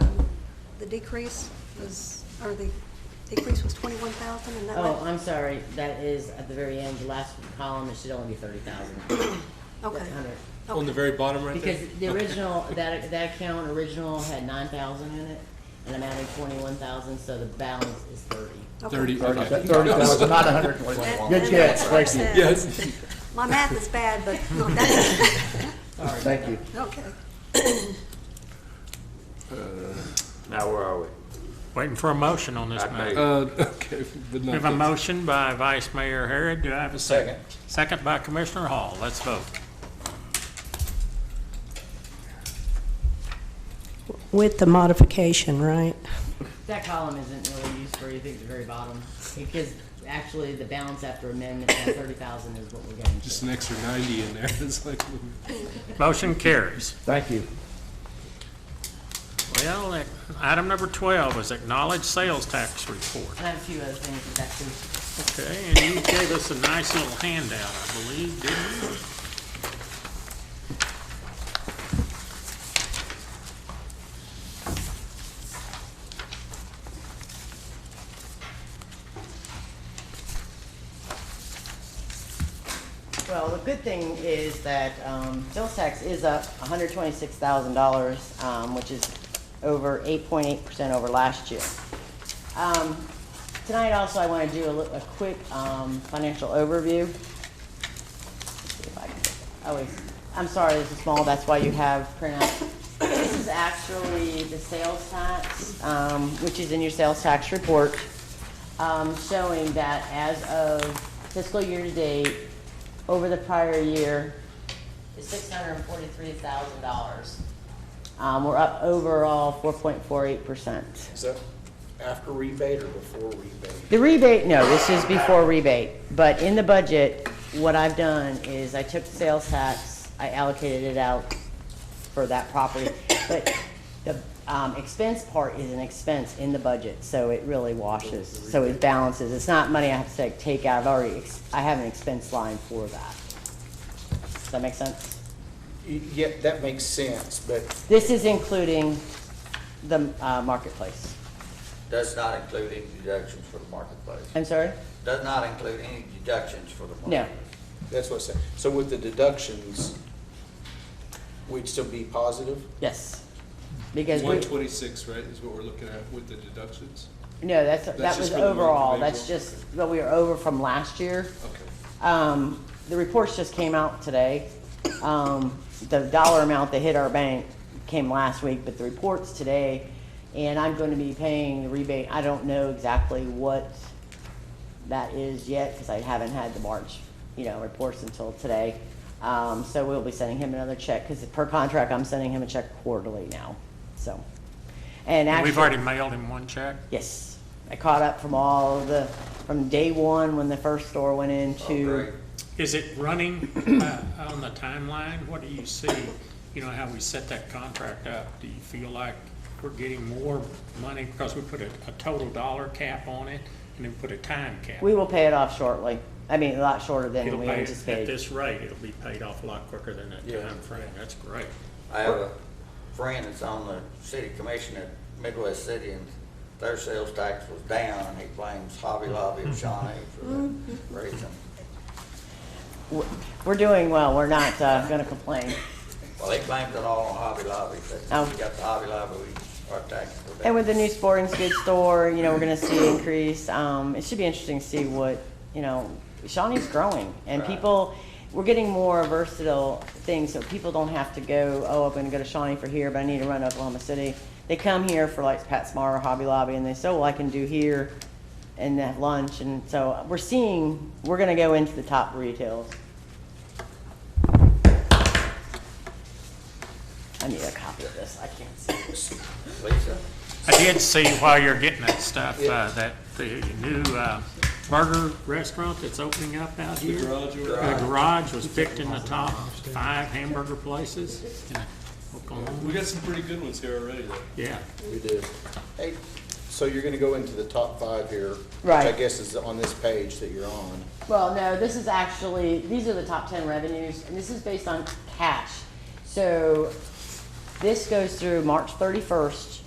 Um, decrease was, or the decrease was twenty-one thousand, and that Oh, what? I'm sorry, that is at the very end, the last column, it should only be thirty thousand. Okay. On the Okay. very bottom right there? Because the original, that, that account original had nine thousand in it, and I'm adding twenty-one thousand, so the balance is thirty. Okay. Thirty, okay. Thirty thousand, not a hundred and That- twenty. and Good catch, that's what I thank you, said. Yes. My math is bad, but, no, that's, thank you. okay. Now, where are we? Waiting for a motion on this I matter. think- Uh, okay, but We not have a this. motion by Vice Mayor Harrod. Do I have a second? Second by Commissioner Hall. Let's vote. With the modification, right? That column isn't really used for anything at the very bottom, because actually, the balance after amendment, that thirty thousand is what we're getting Just to. an extra ninety in there, it's like, Motion carries. Thank you. Well, ac- item number 12 is acknowledged sales tax report. And I have a few other things that's actually Okay, and you gave us a nice little handout, I believe, didn't you? Well, the good thing is that um, sales tax is up $126,000, um, which is over 8.8% over last year. Um, Tonight also, I want to do a li- a quick um, financial overview. Let's see if I can- Oh, wait. I'm sorry, this is small, that's why you have printout. This is actually the sales tax, um, which is in your sales tax report, um, showing that as of fiscal year-to-date, over the prior year, is $643,000. Um, We're up overall 4.48%. Is that after rebate or before rebate? The rebate, no, this is before rebate, but in the budget, what I've done is I took the sales tax, I allocated it out for that property, but the um, expense part is an expense in the budget, so it really washes, so it balances. It's not money I have to like, take out, I've already, ex- I have an expense line for that. Does that make sense? Y- Yeah, that makes sense, but This is including the uh, marketplace. Does not include any deductions for the marketplace. I'm sorry? Does not include any deductions for the No. marketplace. that's what I said. So with the deductions, we'd still be positive? Yes. Because we. one twenty-six, right, is what we're looking at with the deductions? No, that's, that just was for the month of overall, that's April? just, what we were over from last year. Okay. Um, the reports just came out today. Um, the dollar amount that hit our bank came last week, but the reports today, and I'm going to be paying the rebate. I don't know exactly what that is yet, because I haven't had the March, you know, reports until today. Um, so we'll be sending him another check, because per contract, I'm sending him a check quarterly now, so. And actually. We've already mailed him one check. Yes, I caught up from all of the, from day one when the first store went Oh, into. great. Is it running uh, on the timeline? What do you see? You know, how we set that contract up? Do you feel like we're getting more money because we put a, a total dollar cap on it and then put a time cap? We will pay it off shortly. I mean, a lot shorter It'll than we pay At anticipated. this rate, it'll be paid off a lot quicker than that Yeah. time frame. That's great. I have a friend that's on the city commission at Midwest City, and their sales tax was down, and he blames Hobby Lobby and Shawnee for that reason. We're- We're doing well. We're not, uh, gonna complain. Well, he blames it all on Hobby Lobby, Oh. but we got the Hobby Lobby, we are taxed for that. And with the new sporting goods store, you know, we're gonna see increase. Um, it should be interesting to see what, you know, Shawnee's growing and Right. people, we're getting more versatile things, so people don't have to go, oh, I'm gonna go to Shawnee for here, but I need to run to Oklahoma City. They come here for like PetSmart or Hobby Lobby and they say, oh, well, I can do here and have lunch. And so we're seeing, we're gonna go into the top retails. I need a copy of this. I can't see this. Lisa? I did see while you're getting that stuff, uh, that the new uh, burger restaurant that's opening up out here. The garage. was picked in the top five hamburger places in We Oklahoma. got some pretty good ones here already, though. Yeah, We do. Hey, so you're gonna go into the top five here. Right. Which I guess is on this page that you're on. Well, no, this is actually, these are the top ten revenues, and this is based on cash. So this goes through March thirty-first